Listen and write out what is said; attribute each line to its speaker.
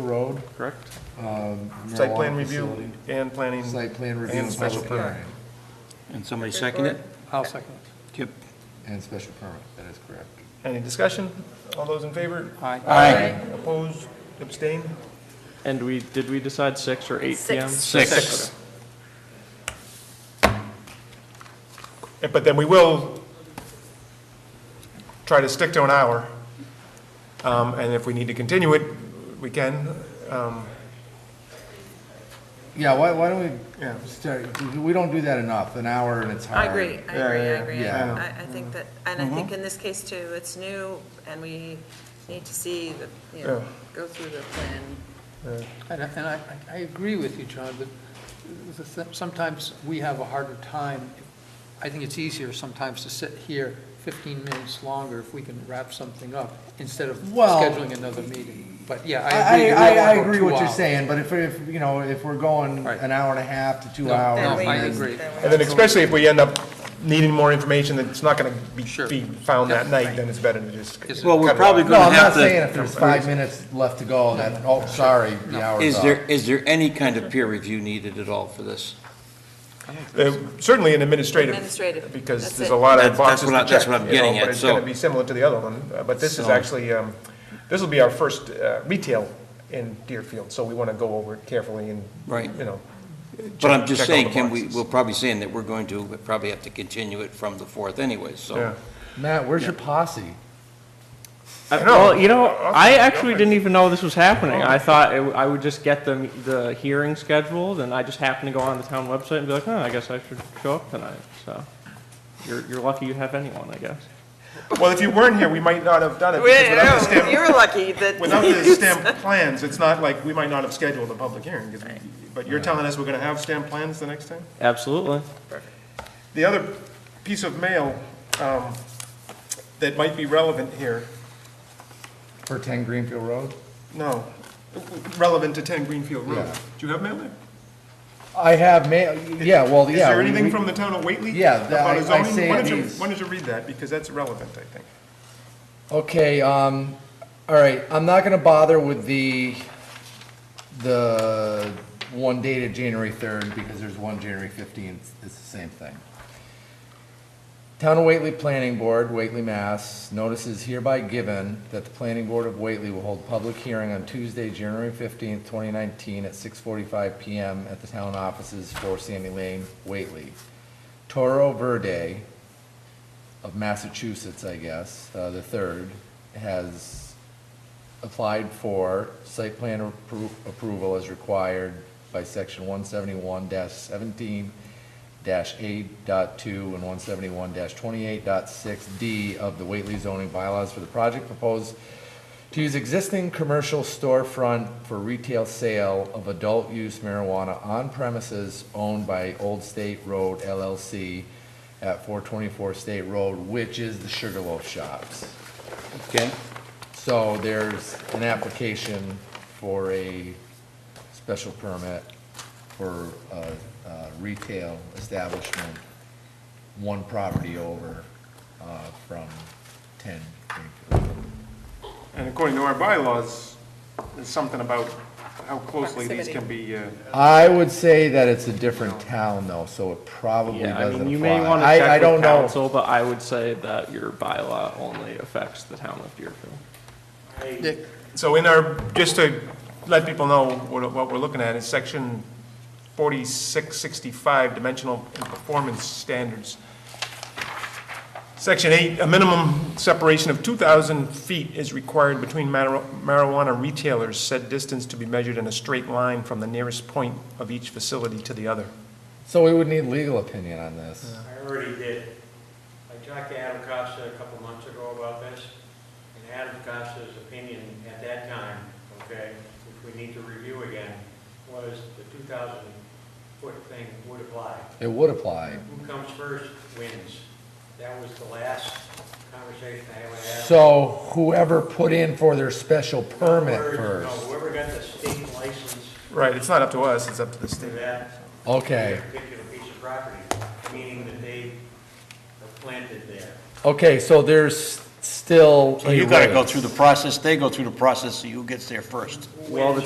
Speaker 1: Road.
Speaker 2: correct?
Speaker 1: um,
Speaker 2: Site plan
Speaker 1: marijuana
Speaker 2: review
Speaker 1: facility.
Speaker 2: and planning.
Speaker 1: Site plan review
Speaker 2: And
Speaker 1: and
Speaker 2: special
Speaker 1: special permit.
Speaker 3: And somebody second it?
Speaker 4: I'll second.
Speaker 3: Kip?
Speaker 1: And special permit, that is correct.
Speaker 2: Any discussion? All those in favor?
Speaker 4: Aye.
Speaker 3: Aye.
Speaker 2: Opposed? Abstained?
Speaker 4: And we, did we decide six or eight PM?
Speaker 5: Six.
Speaker 3: Six.
Speaker 2: Eh, But then we will try to stick to an hour. Um, And if we need to continue it, we can. Um,
Speaker 1: Yeah, why, why don't
Speaker 2: Yeah.
Speaker 1: we start, we don't do that enough, an hour and it's
Speaker 5: I
Speaker 6: Um,
Speaker 1: hard.
Speaker 5: agree, I
Speaker 2: Yeah,
Speaker 5: agree, I
Speaker 2: yeah, Mm-hmm.
Speaker 5: agree.
Speaker 1: yeah.
Speaker 5: I, I think that, and I think in this case too, it's new, and we need to see the, you know,
Speaker 2: Yeah.
Speaker 5: go through the plan
Speaker 6: And I, and I, I agree with you, John, but the th- sometimes we have a harder time. I think it's easier sometimes to sit here 15 minutes longer if we can wrap something up instead of
Speaker 1: Well-
Speaker 6: scheduling another meeting. But yeah,
Speaker 1: I,
Speaker 6: I agree.
Speaker 1: I,
Speaker 6: we
Speaker 1: I
Speaker 6: all go
Speaker 1: agree
Speaker 6: two
Speaker 1: what you're
Speaker 6: hours.
Speaker 1: saying, but if, if, you know, if we're going
Speaker 6: Right.
Speaker 1: an hour and a half to two
Speaker 6: No,
Speaker 1: hours.
Speaker 6: Oh, no,
Speaker 5: Then
Speaker 6: I
Speaker 5: we-
Speaker 1: then-
Speaker 6: agree.
Speaker 5: then we-
Speaker 2: And then especially if we end up needing more information that's not going to be
Speaker 6: Sure.
Speaker 2: be found that night, then it's better to just.
Speaker 6: Yes.
Speaker 3: Well, we're
Speaker 2: cut it
Speaker 3: probably
Speaker 2: off.
Speaker 1: No,
Speaker 3: going
Speaker 1: I'm
Speaker 3: to
Speaker 1: not
Speaker 3: have
Speaker 1: saying if
Speaker 3: to,
Speaker 1: there's five minutes left to go, that, oh, sorry, the hour's
Speaker 3: is
Speaker 1: up.
Speaker 3: there, is there any kind of peer review needed at all for this?
Speaker 2: Uh, Certainly an administrative.
Speaker 5: Administrative,
Speaker 2: Because
Speaker 5: that's
Speaker 2: there's
Speaker 5: it.
Speaker 2: a lot
Speaker 3: That-
Speaker 2: of
Speaker 3: that's
Speaker 2: boxes
Speaker 3: what I-
Speaker 2: to
Speaker 3: that's
Speaker 2: check.
Speaker 3: what I'm
Speaker 2: you know,
Speaker 3: getting at,
Speaker 2: But it's going
Speaker 3: so-
Speaker 2: to be similar to the other one, Uh, but this is
Speaker 3: So-
Speaker 2: actually, um, this will be our first uh, retail in Deerfield, so we want to go over it carefully and,
Speaker 3: Right.
Speaker 2: you know.
Speaker 3: But I'm
Speaker 2: check-
Speaker 3: just
Speaker 2: check all
Speaker 3: saying,
Speaker 2: the
Speaker 3: Kim, we,
Speaker 2: boxes.
Speaker 3: we're probably saying that we're going to probably have to continue it from the 4th anyway,
Speaker 2: Yeah.
Speaker 3: so.
Speaker 1: Matt, where's your posse?
Speaker 4: I- Uh, Well, you know, I actually didn't even know this was
Speaker 1: Oh.
Speaker 4: happening. I thought it w- I would just get the, the hearing scheduled, and I just happened to go on the town website and be like, oh, I guess I should show up tonight, so. You're, you're lucky you have anyone, I guess.
Speaker 2: Well, if you weren't here, we might not have done it. because without the stamp-
Speaker 5: You were lucky that.
Speaker 2: Without the stamp plans, it's not like, we might not have scheduled a public hearing, 'cause we- but you're telling us we're going to have stamp plans the next time?
Speaker 4: Absolutely.
Speaker 2: The other piece of mail um, that might be relevant here
Speaker 1: For ten Greenfield Road?
Speaker 2: No, relevant to 10 Greenfield Road.
Speaker 1: Yeah.
Speaker 2: Do you have mail there?
Speaker 1: I have ma, yeah, well,
Speaker 2: Is
Speaker 1: Oh, yeah.
Speaker 2: there
Speaker 1: we-
Speaker 2: anything
Speaker 1: we-
Speaker 2: from the town of Whately?
Speaker 1: Yeah, that-
Speaker 2: about
Speaker 1: I-
Speaker 2: a
Speaker 1: I
Speaker 2: zoning?
Speaker 1: say
Speaker 2: Why
Speaker 1: it
Speaker 2: don't you-
Speaker 1: is.
Speaker 2: Why don't you read that, because that's relevant, I think.
Speaker 1: Okay, um, all right, I'm not gonna bother with the, the one dated January third, because there's one January fifteenth, it's the same thing. Town of Whately Planning Board, Whately, Mass, notice is hereby given that the Planning Board of Whately will hold public hearing on Tuesday, January fifteenth, twenty nineteen, at six forty-five PM at the town offices for Sandy Lane, Whately. Toro Verde, of Massachusetts, I guess, uh, the third, has applied for site plan appro- approval as required by section one seventy-one seventeen eight and one seventy-one 286 D of the Whately zoning bylaws for the project proposed to use existing commercial storefront for retail sale of adult-use marijuana on premises owned by Old State Road LLC at 424 State Road, which is the Sugarloaf Shops.
Speaker 3: Okay,
Speaker 1: So there's an application for a special permit for a a retail establishment, one property over uh, from 10 Greenfield.
Speaker 2: And according to our bylaws, there's something about how closely these can be, uh,
Speaker 1: I would say that it's a different town though, so it probably
Speaker 4: Yeah, I
Speaker 1: doesn't
Speaker 4: mean,
Speaker 1: apply.
Speaker 4: you may want to
Speaker 1: I- I
Speaker 4: check
Speaker 1: don't
Speaker 4: with
Speaker 1: know.
Speaker 4: council, but I would say that your bylaw only affects the town of Deerfield.
Speaker 2: so in our, just to let people know what what we're looking at, is section 4665, dimensional and performance standards. Section 8, a minimum separation of 2,000 feet is required between mar- marijuana retailers, said distance to be measured in a straight line from the nearest point of each facility to the other.
Speaker 1: So we would need legal opinion on this.
Speaker 7: I already did. I talked to Adam Costa a couple months ago about this, and Adam Costa's opinion at that time, okay, which we need to review again, was the 2,000-foot thing would apply.
Speaker 1: It would apply.
Speaker 7: Who comes first wins. That was the last conversation I had with Adam.
Speaker 1: So whoever put in for their special permit
Speaker 7: Whoever- no,
Speaker 1: first.
Speaker 7: Whoever got the state license
Speaker 2: Right, it's not up to us, it's up to the
Speaker 7: for
Speaker 2: state.
Speaker 7: that
Speaker 1: Okay,
Speaker 7: particular piece of property, meaning that they planted there.
Speaker 1: okay, so there's still.
Speaker 3: so you
Speaker 1: a
Speaker 3: got to go
Speaker 1: race.
Speaker 3: through the process, they go through the process, so who gets there first?
Speaker 4: Well, the